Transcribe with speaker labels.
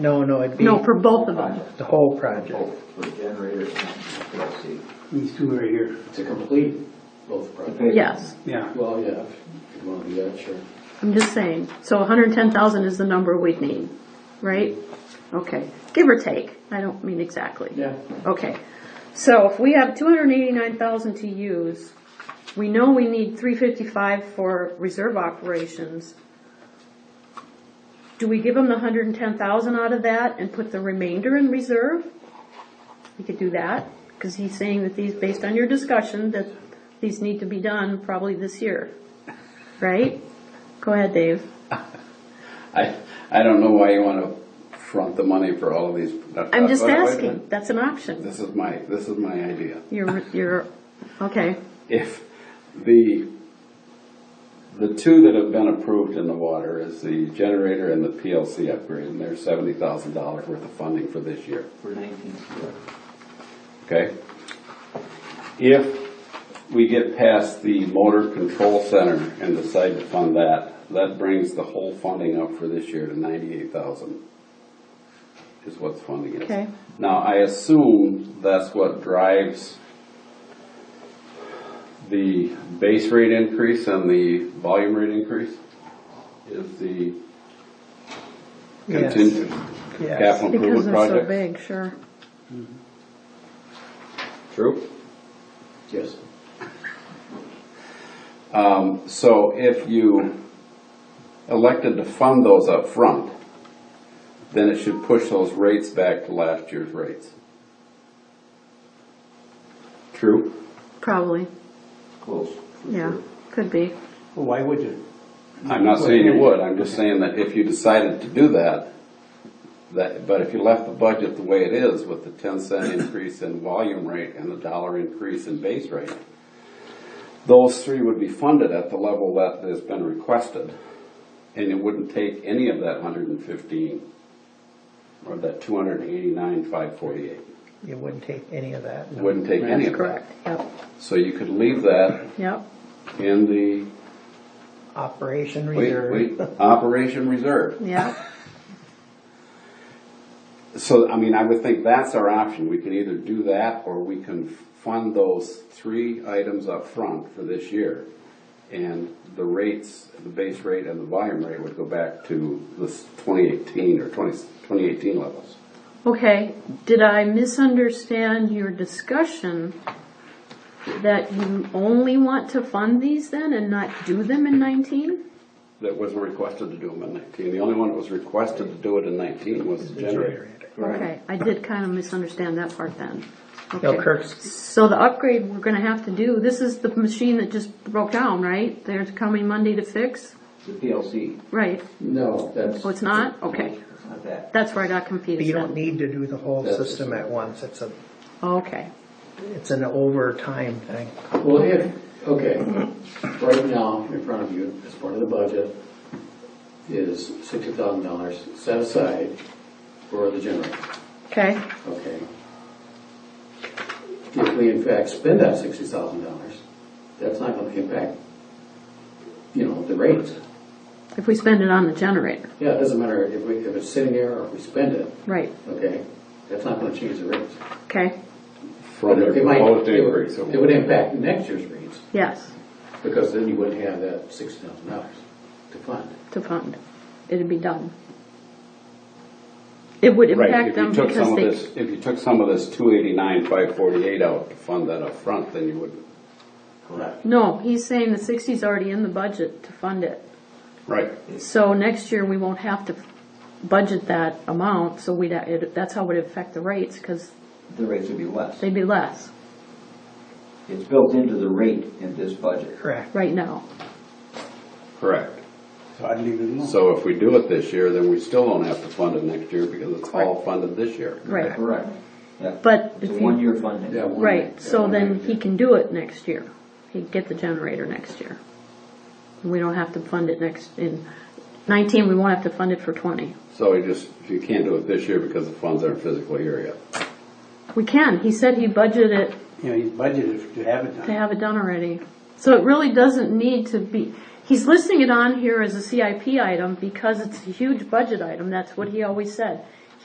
Speaker 1: No, no, it'd be
Speaker 2: No, for both of them.
Speaker 1: the whole project.
Speaker 3: Oh, for generator and PLC.
Speaker 4: These two right here.
Speaker 5: To complete both
Speaker 3: The
Speaker 5: projects.
Speaker 3: paper.
Speaker 2: Yes,
Speaker 4: Yeah.
Speaker 5: Well, yeah, if you want to do that, sure.
Speaker 2: I'm just saying. So 110,000 is the number we'd need, right? Okay, give or take. I don't mean exactly.
Speaker 5: Yeah.
Speaker 2: Okay, so if we have two hundred eighty-nine thousand to use, we know we need three fifty-five for reserve operations. Do we give them the hundred and ten thousand out of that and put the remainder in reserve? We could do that, because he's saying that these, based on your discussion, that these need to be done probably this year, right? Go ahead, Dave.
Speaker 6: I, I don't know why you want to front the money for all of these. uh,
Speaker 2: I'm just
Speaker 6: Wait a minute.
Speaker 2: asking, that's an option.
Speaker 6: This is my, this is my idea.
Speaker 2: You're, you're, okay,
Speaker 6: If the, the two that have been approved in the water is the generator and the PLC upgrade, and there's seventy thousand dollars worth of funding for this year,
Speaker 3: For nineteen, correct.
Speaker 6: okay? If we get past the motor control center and decide to fund that, that brings the whole funding up for this year to ninety-eight thousand is what's funding it.
Speaker 2: okay.
Speaker 6: Now, I assume that's what drives the base rate increase and the volume rate increase? Is the
Speaker 1: Yes.
Speaker 6: contingent
Speaker 1: Yes.
Speaker 6: capital
Speaker 2: Because
Speaker 6: improvement
Speaker 2: they're so
Speaker 6: project?
Speaker 2: big, sure.
Speaker 6: True.
Speaker 5: Yes.
Speaker 6: Um, so if you elected to fund those up front, then it should push those rates back to last year's rates. True?
Speaker 2: Probably,
Speaker 3: close. for
Speaker 2: yeah,
Speaker 3: sure.
Speaker 2: could be.
Speaker 4: Well, why would you?
Speaker 6: I'm not saying you would, I'm just saying that if you decided to do that, that, but if you left the budget the way it is with the ten cent increase in volume rate and the dollar increase in base rate, those three would be funded at the level that has been requested. And it wouldn't take any of that hundred and fifteen or that two hundred and eighty-nine, five forty-eight.
Speaker 1: You wouldn't take any of that. no.
Speaker 6: Wouldn't take any of that.
Speaker 2: Yep,
Speaker 6: So you could leave that
Speaker 2: yep,
Speaker 6: in the,
Speaker 1: Operation
Speaker 6: wait,
Speaker 1: reserve.
Speaker 6: wait, operation reserve.
Speaker 2: yep.
Speaker 6: So, I mean, I would think that's our option. We can either do that or we can fund those three items up front for this year. And the rates, the base rate and the volume rate would go back to the s- 2018 or 20, 2018 levels.
Speaker 2: Okay, did I misunderstand your discussion that you only want to fund these then and not do them in 19?
Speaker 6: That wasn't requested to do them in 19. The only one that was requested to do it in 19 was the generator.
Speaker 2: Okay, I did kind of misunderstand that part then.
Speaker 1: No,
Speaker 2: Okay.
Speaker 1: Kirk's,
Speaker 2: So the upgrade we're gonna have to do, this is the machine that just broke down, right? They're coming Monday to fix?
Speaker 3: The PLC,
Speaker 2: Right,
Speaker 5: No, that's,
Speaker 2: oh, it's not? Okay,
Speaker 3: it's not that.
Speaker 2: that's where I got confused
Speaker 1: you don't
Speaker 2: then.
Speaker 1: need to do the whole
Speaker 5: That's-
Speaker 1: system at once. It's a,
Speaker 2: Okay.
Speaker 1: it's an overtime thing.
Speaker 5: well, if, okay, right now, in front of you, as part of the budget, is sixty thousand dollars set aside for the generator,
Speaker 2: Okay,
Speaker 5: okay? If we in fact spend that sixty thousand dollars, that's not gonna impact, you know, the rates.
Speaker 2: if we spend it on the generator,
Speaker 5: Yeah, it doesn't matter if we, if it's sitting there or if we spend it,
Speaker 2: right,
Speaker 5: okay? That's not gonna change the rates.
Speaker 2: okay,
Speaker 6: From the
Speaker 5: It might-
Speaker 6: proposed
Speaker 5: it would-
Speaker 6: increase.
Speaker 5: It would impact next year's rates,
Speaker 2: yes,
Speaker 5: because then you wouldn't have that six thousand dollars to fund.
Speaker 2: to fund, it'd be done. It would
Speaker 6: Right,
Speaker 2: impact
Speaker 6: if
Speaker 2: them
Speaker 6: you took some
Speaker 2: because
Speaker 6: of
Speaker 2: they,
Speaker 6: this, if you took some of this 289, 548 out to fund that up front, then you wouldn't.
Speaker 3: Correct.
Speaker 2: no, he's saying the sixty's already in the budget to fund it.
Speaker 6: Right.
Speaker 2: So next year, we won't have to budget that amount, so we'd, it- that's how it would affect the rates, because
Speaker 3: The rates would be less.
Speaker 2: they'd be less
Speaker 3: It's built into the rate in this budget.
Speaker 1: Correct.
Speaker 2: right now.
Speaker 6: Correct.
Speaker 4: So I'd leave it alone.
Speaker 6: So if we do it this year, then we still don't have to fund it next year because it's all funded this year.
Speaker 2: Right,
Speaker 3: Correct. Yeah.
Speaker 2: But
Speaker 3: It's a
Speaker 2: if you-
Speaker 3: one-year funding.
Speaker 5: Yeah, one-
Speaker 2: right, so
Speaker 5: yeah,
Speaker 2: then
Speaker 5: one-
Speaker 2: he can do it next year. He'd get the generator next year. We don't have to fund it next, in nineteen, we won't have to fund it for twenty.
Speaker 6: So we just, if you can't do it this year because the funds aren't physically here yet.
Speaker 2: We can, he said he budgeted it
Speaker 4: You know, he's budgeted to have it
Speaker 2: to
Speaker 4: done.
Speaker 2: have it done already. So it really doesn't need to be, he's listing it on here as a CIP item because it's a huge budget item, that's what he always said.